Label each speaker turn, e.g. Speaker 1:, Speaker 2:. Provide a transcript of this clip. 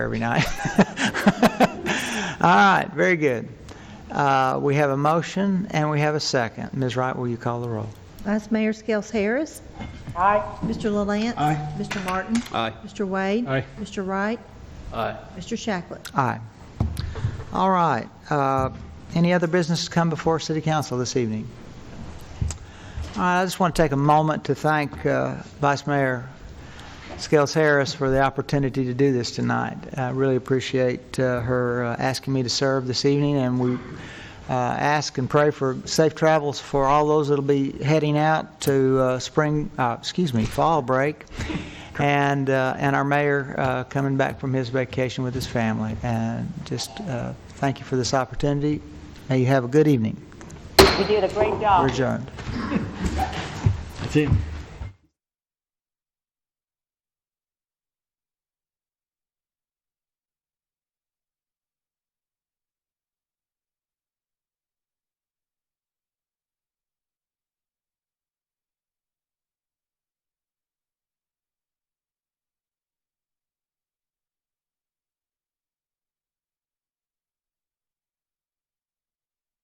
Speaker 1: every night. All right, very good. Uh, We have a motion and we have a second. Ms. Wright, will you call the roll?
Speaker 2: Vice Mayor Skels Harris. Aye. Mr. LaLance. Aye. Mr. Martin.
Speaker 3: Aye.
Speaker 2: Mr. Wade.
Speaker 3: Aye.
Speaker 2: Mr. Wright.
Speaker 3: Aye.
Speaker 2: Mr. Shacklet.
Speaker 1: Aye. All right. uh, Any other business to come before City Council this evening? All right, I just want to take a moment to thank uh, Vice Mayor Scales Harris for the opportunity to do this tonight. I really appreciate uh, her uh, asking me to serve this evening, and we uh, ask and pray for safe travels for all those that'll be heading out to uh, spring, uh, excuse me, fall break, and, uh, and our mayor uh, coming back from his vacation with his family. And just uh, thank you for this opportunity. May you have a good evening.
Speaker 4: You did a great job.
Speaker 1: We're adjourned.
Speaker 3: That's it.